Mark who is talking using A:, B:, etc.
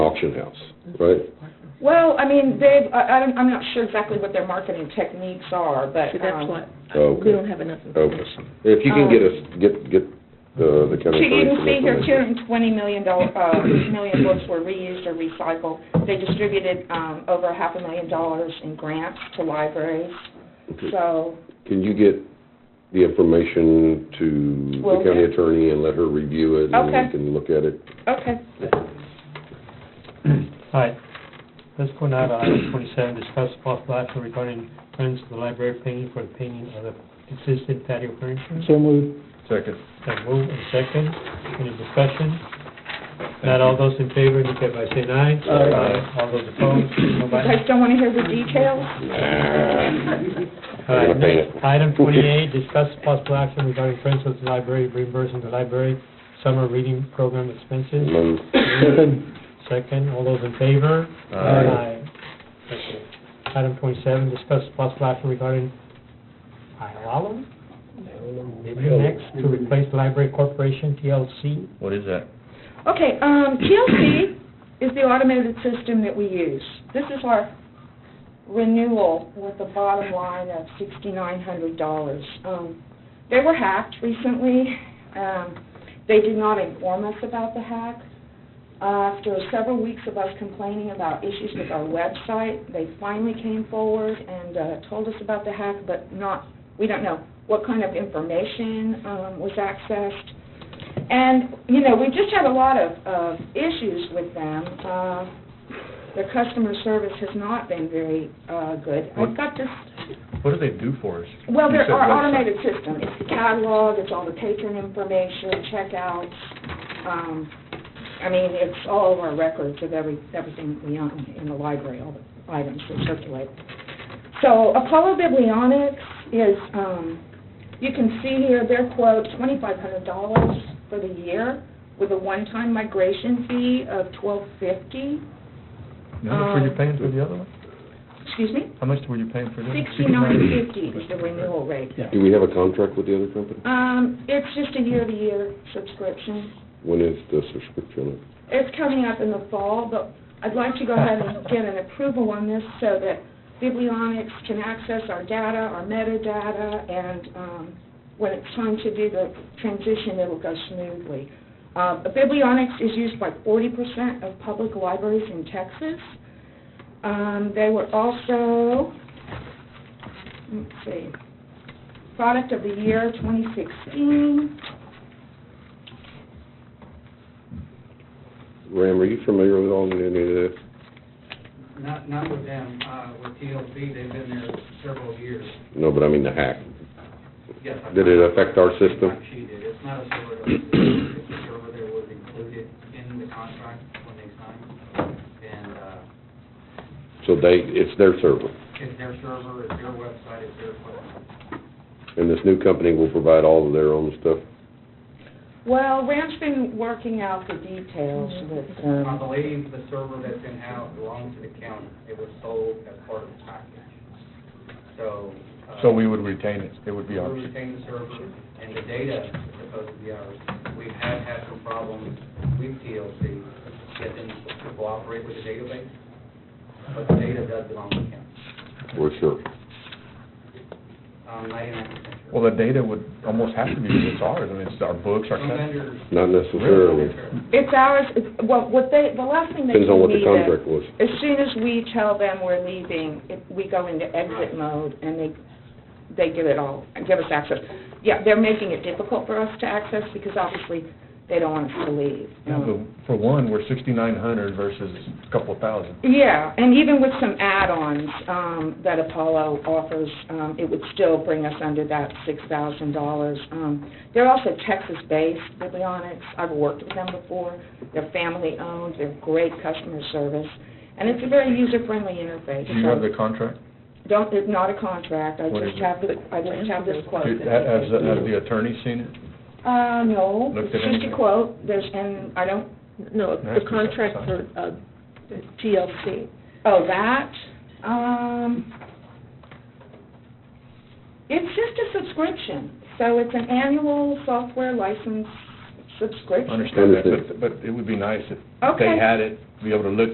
A: auction house, right?
B: Well, I mean, they've, I, I don't- I'm not sure exactly what their marketing techniques are, but,
C: So that's
B: um,
C: what,
A: Okay.
C: we don't have enough
A: Okay.
C: information.
A: If you can get us, get, get uh, the
B: So
A: county
B: you
A: attorney
B: can
A: some
B: see here, two
A: information.
B: hundred and twenty million dollar, uh, million books were reused or recycled. They distributed, um, over a half a million dollars in grants to libraries,
A: Okay.
B: so,
A: Can you get the information to
B: Will
A: the county
B: do.
A: attorney and let her review it?
B: Okay.
A: And we can look at it?
B: okay.
D: Hi, let's go now to item twenty-seven, discuss possible action regarding plans for the library painting for the painting of the existing patio furniture.
E: So moved.
F: Second.
D: Got move and second, any discussion? Not all those in favor, indicate by saying aye.
E: Aye.
D: All those opposed,
B: You
D: nobody?
B: guys don't wanna hear the details?
D: All
A: I'm gonna paint
D: right,
A: it.
D: item twenty-eight, discuss possible action regarding Friends of the Library reimbursing the library summer reading program expenses.
A: Um,
E: Second.
D: Second, all those in favor?
F: Aye.
D: Okay. Item twenty-seven, discuss possible action regarding Ilalum? Maybe next, to replace Library Corporation TLC.
F: What is that?
B: Okay, um, TLC is the automated system that we use. This is our renewal with a bottom line of sixty-nine hundred dollars. Um, they were hacked recently. Um, they did not inform us about the hack. After several weeks of us complaining about issues with our website, they finally came forward and, uh, told us about the hack, but not, we don't know what kind of information, um, was accessed. And, you know, we just had a lot of, of issues with them. Uh, Their customer service has not been very uh good. I've got this,
F: What do they do for us?
B: well,
F: You
B: there
F: said
B: are
F: website.
B: automated system. It's the catalog, it's all the patron information, checkouts. Um I mean, it's all of our records of every, everything we own in the library, all the items that circulate. So Apollo Biblionics is, um, you can see here their quote, twenty-five hundred dollars for the year with a one-time migration fee of twelve fifty,
F: How much were you
B: Um,
F: paying for the other one?
B: excuse me,
F: How much were you paying for this?
B: sixty-nine fifty is the renewal rate.
E: Yeah.
A: Do we have a contract with the other company?
B: Um, it's just a year-to-year subscription.
A: When is the subscription?
B: It's coming up in the fall, but I'd like to go ahead and get an approval on this so that Biblionics can access our data, our metadata, and um, when it's time to do the transition, it'll go smoothly. Uh, Biblionics is used by 40% of public libraries in Texas. Um, They were also, let's see, Product of the Year 2016.
A: Ram, are you familiar with all any of this?
G: Not, not with them, uh, with TLC, they've been there several years.
A: No, but I mean the hack.
G: Yes, I-
A: Did it affect our system?
G: She did, it's not a server, it's a server that was included in the contract when they signed, and, uh,
A: So they, it's their server,
G: it's their server, it's their website, it's their equipment.
A: and this new company will provide all of their own stuff?
B: Well, Ram's been working out the details with
G: I
B: um
G: believe the server that's in house belongs to the county, it was sold as part of the package, so. uh,
F: So we would retain it, it would be
G: We
F: ours.
G: retain the server, and the data is supposed to be ours. We have had some problems with TLC, getting them to cooperate with the database, but the data does belong to him.
A: We're sure.
G: Um, ninety-nine percent
F: Well,
G: sure.
F: the data would almost have to be, it's ours, I mean, it's our books, our.
G: Some vendors.
A: Not necessarily.
B: It's ours, it's- well, what they, the last thing they
A: Depends on
B: told
A: what
B: me
A: the
B: that,
A: contract was.
B: as soon as we tell them we're leaving, if we go into exit mode, and they, they give it all, give us access. Yeah, they're making it difficult for us to access, because obviously, they don't want us to leave.
F: Yeah, but For one, we're sixty-nine hundred versus a couple of thousand.
B: Yeah, and even with some add-ons um, that Apollo offers, um, it would still bring us under that $6,000. Um, They're also Texas-based, Biblionics. I've worked with them before. They're family-owned, they're great customer service, and it's a very user-friendly interface.
F: Do you have the contract?
B: Don't, it's not a contract, I
F: What
B: just
F: is it?
B: have the, I just have this quote.
F: Do-
B: that
F: ha- Has,
B: they gave
F: has
B: me.
F: the attorney seen it?
B: Uh, no, it's
F: looked at
B: just
F: anything?
B: a quote, there's, and I don't,
C: No, the
F: Nice.
C: contract for, uh, TLC.
B: Oh, that, um, it's just a subscription, so it's an annual software license subscription.
F: Understand that,
A: Understood.
F: but, but it would be nice if
B: Okay.
F: they had it, be able to look